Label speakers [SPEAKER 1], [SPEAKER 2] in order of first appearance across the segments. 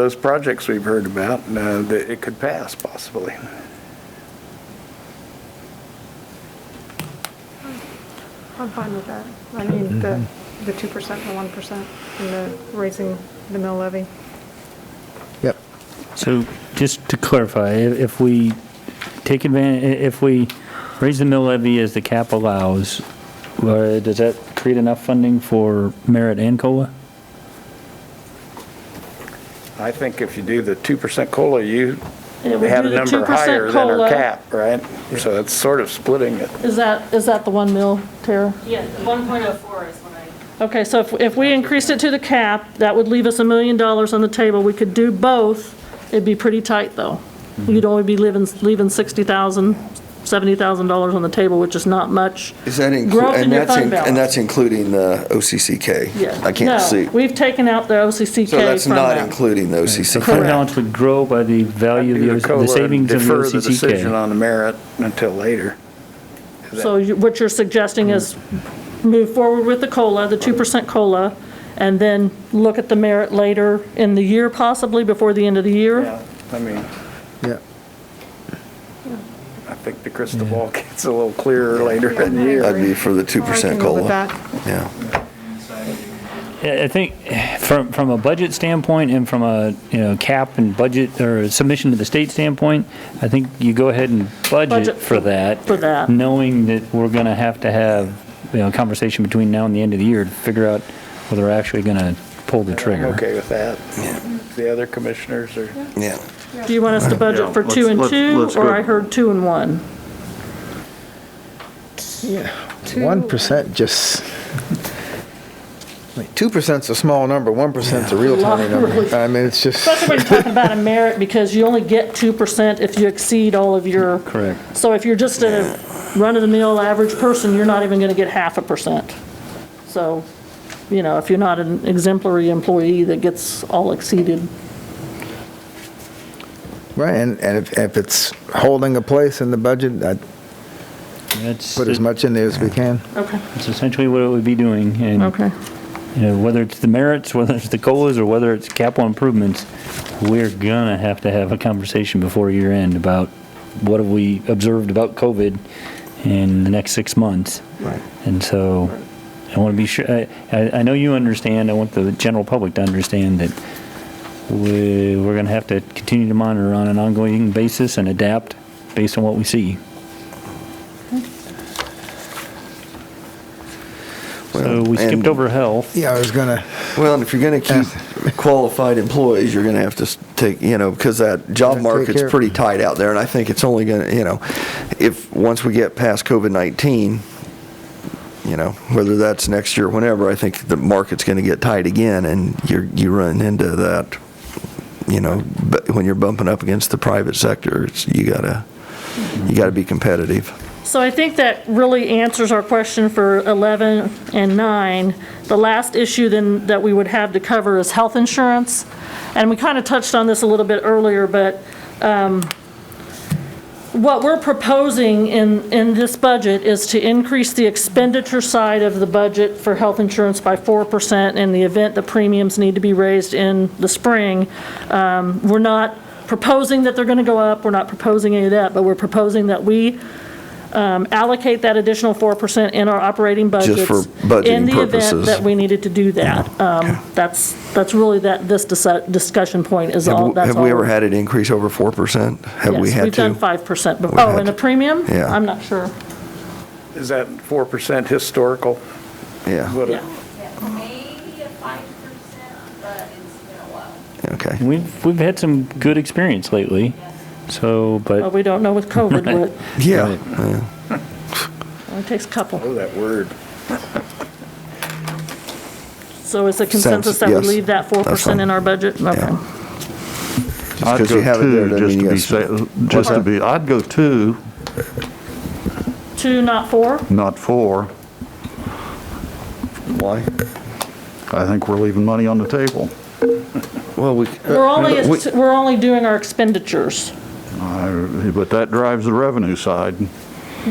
[SPEAKER 1] those projects we've heard about, uh, that it could pass possibly.
[SPEAKER 2] I'm fine with that. I mean, the, the 2%, the 1%, and the raising the mill levy.
[SPEAKER 3] Yep.
[SPEAKER 4] So just to clarify, i- if we take advantage, if we raise the mill levy as the cap allows, uh, does that create enough funding for merit and COLA?
[SPEAKER 1] I think if you do the 2% COLA, you
[SPEAKER 5] Yeah, we
[SPEAKER 1] had
[SPEAKER 5] do
[SPEAKER 1] a
[SPEAKER 5] the
[SPEAKER 1] number
[SPEAKER 5] 2%
[SPEAKER 1] higher than our
[SPEAKER 5] COLA.
[SPEAKER 1] cap, right? So it's sort of splitting it.
[SPEAKER 5] Is that, is that the 1 mil, Tara?
[SPEAKER 6] Yeah, the 1.04 is what I.
[SPEAKER 5] Okay, so if, if we increased it to the cap, that would leave us a million dollars on the table. We could do both. It'd be pretty tight, though.
[SPEAKER 3] Mm-hmm.
[SPEAKER 5] You'd only be leaving, leaving $60,000, $70,000 on the table, which is not much.
[SPEAKER 3] Is that
[SPEAKER 5] Growth
[SPEAKER 3] including,
[SPEAKER 5] in
[SPEAKER 3] and
[SPEAKER 5] your
[SPEAKER 3] that's,
[SPEAKER 5] fund
[SPEAKER 3] in-
[SPEAKER 5] balance.
[SPEAKER 3] and that's including the OCCK?
[SPEAKER 5] Yeah.
[SPEAKER 3] I can't
[SPEAKER 5] No,
[SPEAKER 3] see.
[SPEAKER 5] We've taken out the OCCK
[SPEAKER 3] So
[SPEAKER 5] from that.
[SPEAKER 3] that's not including the OCCK?
[SPEAKER 4] Fund balance would grow by the value
[SPEAKER 1] Do
[SPEAKER 4] of the-
[SPEAKER 1] COLA and
[SPEAKER 4] the savings of the
[SPEAKER 1] Defer the decision
[SPEAKER 4] OCCK.
[SPEAKER 1] on the merit until later.
[SPEAKER 5] So you- what you're suggesting is move forward with the COLA, the 2% COLA, and then look at the merit later in the year possibly, before the end of the year?
[SPEAKER 1] Yeah, I mean,
[SPEAKER 3] Yeah.
[SPEAKER 1] I think the crystal ball gets a little clearer later in the year.
[SPEAKER 3] I'd be for the
[SPEAKER 2] I
[SPEAKER 3] 2%
[SPEAKER 2] can go with
[SPEAKER 3] COLA.
[SPEAKER 2] that.
[SPEAKER 3] Yeah.
[SPEAKER 4] I I think from, from a budget standpoint and from a, you know, cap and budget or submission to the state standpoint, I think you go ahead and budget
[SPEAKER 5] Budget
[SPEAKER 4] for that.
[SPEAKER 5] for that.
[SPEAKER 4] Knowing that we're going to have to have, you know, a conversation between now and the end of the year to figure out whether we're actually going to pull the
[SPEAKER 1] I'm
[SPEAKER 4] trigger.
[SPEAKER 1] okay with that.
[SPEAKER 3] Yeah.
[SPEAKER 1] The other commissioners are,
[SPEAKER 3] Yeah.
[SPEAKER 5] Do you want us to budget for two and
[SPEAKER 7] let's-
[SPEAKER 5] two,
[SPEAKER 7] let's go.
[SPEAKER 5] or I heard two and one?
[SPEAKER 3] One percent just. Two percent's a small number, one percent's a real tiny number. I mean, it's just.
[SPEAKER 5] Especially when you're talking about a merit, because you only get 2% if you exceed all of your.
[SPEAKER 4] Correct.
[SPEAKER 5] So if you're just a run-of-the-mill average person, you're not even going to get half a percent. So, you know, if you're not an exemplary employee that gets all exceeded.
[SPEAKER 8] Right, and, and if, if it's holding a place in the budget, I'd
[SPEAKER 4] That's,
[SPEAKER 8] put as
[SPEAKER 4] that's
[SPEAKER 8] much in there as we can.
[SPEAKER 5] Okay,
[SPEAKER 4] essentially what it would be doing. And,
[SPEAKER 5] okay.
[SPEAKER 4] you know, whether it's the merits, whether it's the COLAs, or whether it's capital improvements, we're gonna have to have a conversation before year end about what have we observed about COVID in the next six months. Right. And so I want to be sure, I, I I know you understand, I want the general public to understand that we, we're gonna have to continue to monitor on an ongoing basis and adapt based on what we see. So
[SPEAKER 3] Well,
[SPEAKER 4] we skipped
[SPEAKER 3] and-
[SPEAKER 4] over health.
[SPEAKER 8] Yeah, I was gonna,
[SPEAKER 3] Well, and if you're going to keep qualified employees, you're going to have to s- take, you know, because that job
[SPEAKER 8] Take
[SPEAKER 3] market's
[SPEAKER 8] care of-
[SPEAKER 3] pretty tight out there, and I think it's only going to, you know, if, once we get past COVID-19, you know, whether that's next year or whenever, I think the market's going to get tight again, and you're, you run into that, you know, bu- when you're bumping up against the private sector, it's, you gotta, you gotta be competitive.
[SPEAKER 5] So I think that really answers our question for 11 and 9. The last issue then that we would have to cover is health insurance. And we kind of touched on this a little bit earlier, but um, what we're proposing in, in this budget is to increase the expenditure side of the budget for health insurance by 4% in the event the premiums need to be raised in the spring. Um, We're not proposing that they're going to go up, we're not proposing any of that, but we're proposing that we um, allocate that additional 4% in our operating budgets.
[SPEAKER 3] Just for budgeting
[SPEAKER 5] In the event
[SPEAKER 3] purposes.
[SPEAKER 5] that we needed to do that. Um, That's, that's really that, this dis- discussion point is all,
[SPEAKER 3] Have we-
[SPEAKER 5] that's all.
[SPEAKER 3] have we ever had it increase over 4%? Have we
[SPEAKER 5] Yes,
[SPEAKER 3] had
[SPEAKER 5] We've
[SPEAKER 3] to?
[SPEAKER 5] done 5% before.
[SPEAKER 3] We've
[SPEAKER 5] Oh,
[SPEAKER 3] had
[SPEAKER 5] and a
[SPEAKER 3] to.
[SPEAKER 5] premium?
[SPEAKER 3] Yeah.
[SPEAKER 5] I'm not sure.
[SPEAKER 1] is that 4% historical?
[SPEAKER 3] Yeah,
[SPEAKER 1] What it-
[SPEAKER 5] Yeah.
[SPEAKER 6] Maybe a 5%, but it's been a while.
[SPEAKER 3] okay.
[SPEAKER 4] We've, we've had some good experience lately, so,
[SPEAKER 5] Well,
[SPEAKER 4] but
[SPEAKER 5] we don't know with COVID, what,
[SPEAKER 3] Yeah.
[SPEAKER 5] it takes a couple.
[SPEAKER 1] Oh, that word.
[SPEAKER 5] So is the consensus that we
[SPEAKER 3] yes.
[SPEAKER 5] leave that
[SPEAKER 3] That's fine.
[SPEAKER 5] 4% in our budget? Okay.
[SPEAKER 3] Just 'cause you have it there doesn't mean you gotta
[SPEAKER 7] I'd go two, just to be, sa- just to be, I'd go two,
[SPEAKER 5] Two, not four?
[SPEAKER 7] not four.
[SPEAKER 3] Why?
[SPEAKER 7] I think we're leaving money on the table.
[SPEAKER 3] Well, we.
[SPEAKER 5] We're only,
[SPEAKER 3] we-
[SPEAKER 5] we're only doing our expenditures,
[SPEAKER 7] I- But that drives the revenue side.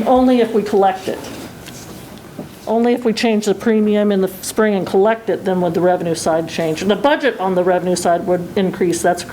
[SPEAKER 5] only if we collect it. Only if we change the premium in the spring and collect it, then would the revenue side change. And the budget on the revenue side would increase, that's